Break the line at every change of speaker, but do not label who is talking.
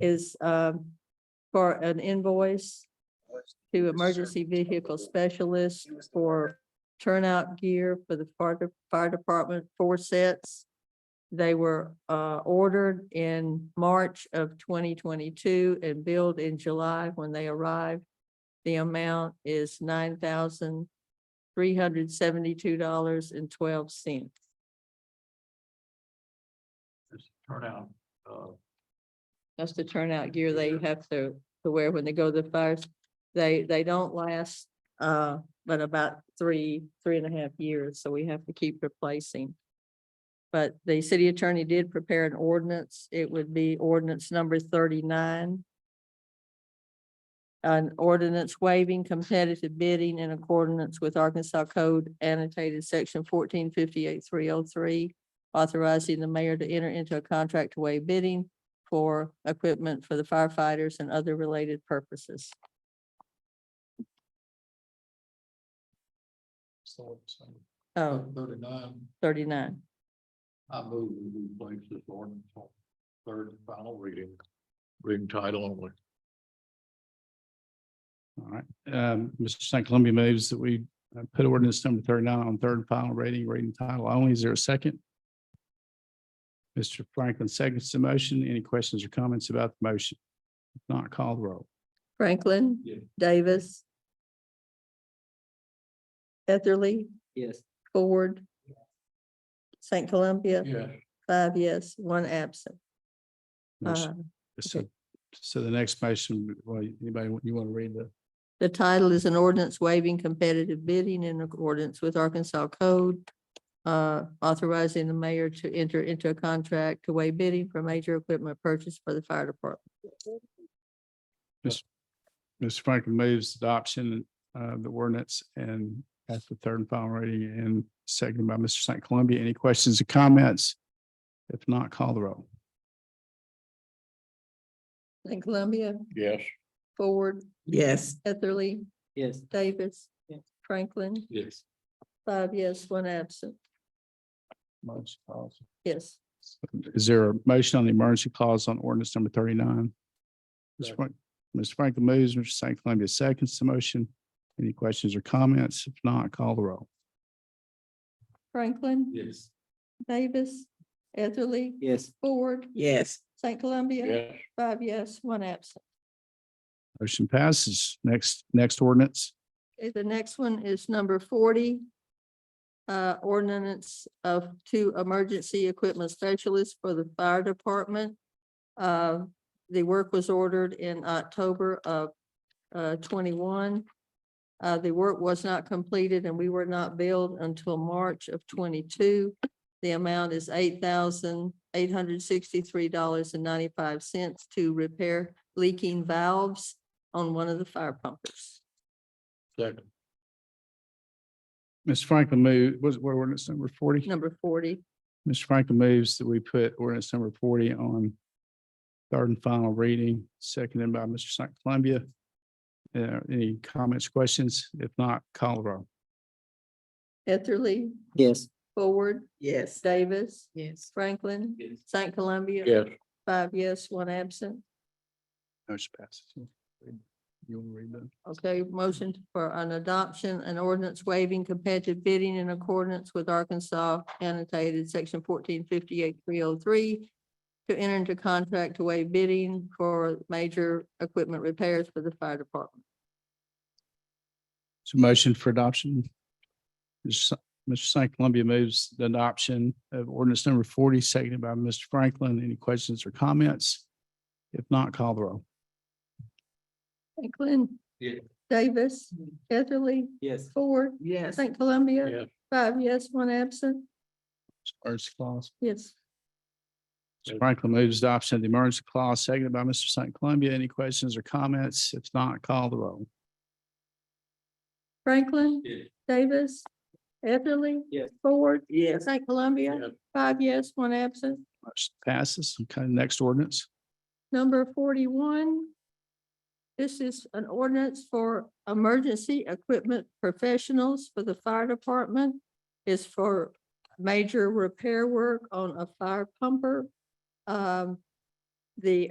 is um, for an invoice to emergency vehicle specialist for turnout gear for the fire, de- fire department, four sets. They were uh, ordered in March of twenty twenty-two and billed in July when they arrived. The amount is nine thousand three hundred seventy-two dollars and twelve cents.
Turnout, uh,
That's the turnout gear they have to, to wear when they go to the fires. They, they don't last, uh, but about three, three and a half years, so we have to keep replacing. But the city attorney did prepare an ordinance. It would be ordinance number thirty-nine. An ordinance waiving competitive bidding in accordance with Arkansas Code annotated section fourteen fifty-eight three oh three. Authorizing the mayor to enter into a contract to waive bidding for equipment for the firefighters and other related purposes.
so, so,
Oh,
thirty-nine,
thirty-nine.
I move we place this ordinance on third and final reading, reading title only.
All right, um, Mr. St. Columbia moves that we uh, put ordinance number thirty-nine on third and final reading, reading title only. Is there a second? Mr. Franklin seconds the motion. Any questions or comments about the motion? If Not call the roll.
Franklin.
Yeah.
Davis. Etherly,
Yes.
Ford. St. Columbia,
Yeah,
five yes, one absent.
Motion-
Uh,
So, so the next motion, well, anybody, you want to read the,
The title is an ordinance waiving competitive bidding in accordance with Arkansas Code. uh, authorizing the mayor to enter into a contract to waive bidding for major equipment purchase for the fire department.
Mr. Franklin moves adoption of the ordinance and that's the third and final reading and seconded by Mr. St. Columbia. Any questions or comments? If not, call the roll.
St. Columbia,
yes.
Ford. Yes. Etherly,
Yes.
Davis.
Yes.
Franklin,
Yes.
five yes, one absent.
Motion calls.
Yes.
Is there a motion on the emergency clause on ordinance number thirty-nine? Mr.
Second.
Frank- Mr. Franklin moves, Mr. St. Columbia seconds the motion. Any questions or comments? If not, call the roll.
Franklin,
Yes.
Davis, Etherly,
Yes.
Ford,
Yes,
St. Columbia,
Yes.
five yes, one absent.
Motion passes. Next, next ordinance.
Okay, the next one is number forty. Uh, ordinance of two emergency equipment specialists for the fire department. Uh, the work was ordered in October of, uh, twenty-one. Uh, the work was not completed and we were not billed until March of twenty-two. The amount is eight thousand eight hundred sixty-three dollars and ninety-five cents to repair leaking valves on one of the fire pumpers.
Second,
Mr. Franklin move, was, what ordinance number forty?
Number forty.
Mr. Franklin moves that we put ordinance number forty on third and final reading, seconded by Mr. St. Columbia. Uh, any comments, questions? If not, call the roll.
Etherly,
yes.
Forward,
Yes.
Davis,
Yes.
Franklin,
Yes.
St. Columbia.
yes.
Five yes, one absent.
Motion passes. You want to read that?
Okay, motion for an adoption, an ordinance waiving competitive bidding in accordance with Arkansas annotated section fourteen fifty-eight three oh three to enter into contract to waive bidding for major equipment repairs for the fire department.
So motion for adoption. Mr. St. Columbia moves the adoption of ordinance number forty, seconded by Mr. Franklin. Any questions or comments? If not, call the roll.
Franklin.
Yeah.
Davis, Etherly,
Yes.
Ford,
Yes.
St. Columbia.
Yes.
Five yes, one absent.
Emergency clause.
Yes.
Mr. Franklin moves adoption of the emergency clause, seconded by Mr. St. Columbia. Any questions or comments? If not, call the roll.
Franklin.
Yes.
Davis, Etherly.
Yes.
Ford,
Yes.
St. Columbia, five yes, one absent.
Motion Passes. Okay, next ordinance.
Number forty-one. This is an ordinance for emergency equipment professionals for the fire department. Is for major repair work on a fire pumper. Um, The